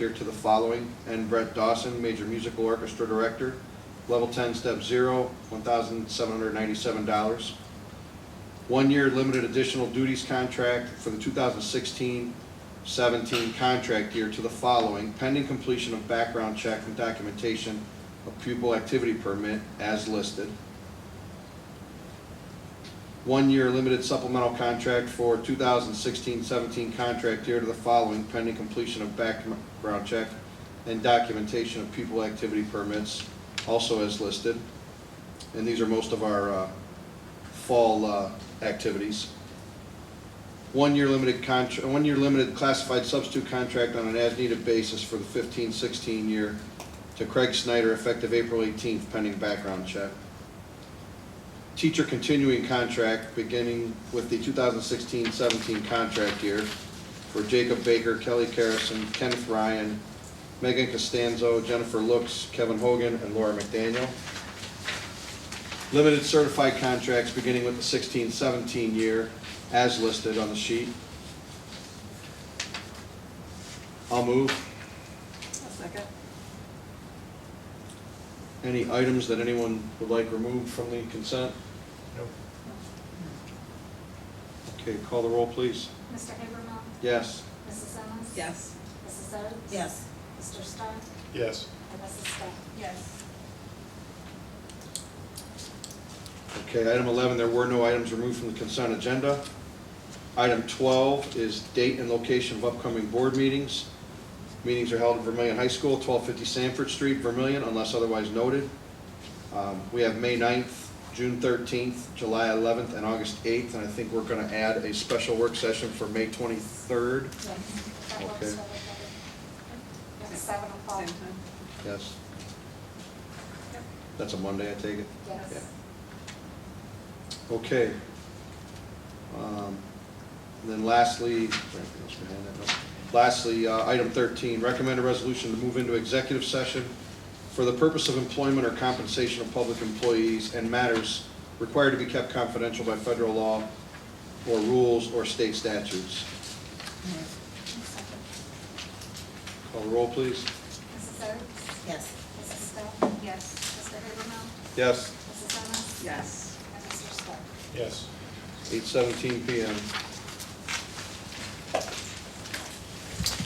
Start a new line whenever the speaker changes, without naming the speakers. here to the following, and Brett Dawson, Major Musical Orchestra Director, Level 10, Step 0, $1,797. One-year limited additional duties contract for the 2016-17 contract year to the following, pending completion of background check and documentation of pupil activity permit as listed. One-year limited supplemental contract for 2016-17 contract year to the following, pending completion of background check and documentation of pupil activity permits, also as listed. And these are most of our uh, fall uh, activities. One-year limited contract, one-year limited classified substitute contract on an as-needed basis for the 15-16 year to Craig Snyder effective April 18th pending background check. Teacher continuing contract beginning with the 2016-17 contract year for Jacob Baker, Kelly Carrison, Kenneth Ryan, Megan Costanzo, Jennifer Looks, Kevin Hogan, and Laura McDaniel. Limited certified contracts beginning with the 16-17 year as listed on the sheet. I'll move.
I'll second.
Any items that anyone would like removed from the consent?
Nope.
Okay, call the roll, please.
Mr. Habermill?
Yes.
Mrs. Ennis?
Yes.
Mrs. Oates?
Yes.
Mr. Stark?
Yes.
And Mrs. Stepp?
Yes.
Okay, item 11, there were no items removed from the consent agenda. Item 12 is date and location of upcoming board meetings. Meetings are held at Vermillion High School, 1250 Sanford Street, Vermillion, unless otherwise noted. Um, We have May 9th, June 13th, July 11th, and August 8th, and I think we're going to add a special work session for May 23rd.
That works for
Okay.
everybody. At seven oh o'clock?
Same time.
Yes. That's a Monday, I take it?
Yes.
Okay. Um, and Then lastly, anything else behind that? No. lastly, uh, item 13, recommend a resolution to move into executive session for the purpose of employment or compensation of public employees and matters required to be kept confidential by federal law or rules or state statutes. Call the roll, please.
Mrs. Oates?
Yes.
Mrs. Stepp?
Yes.
Mr. Habermill?
Yes.
Mrs. Ennis?
Yes.
And Mr. Stark?
Yes.
8:17 PM.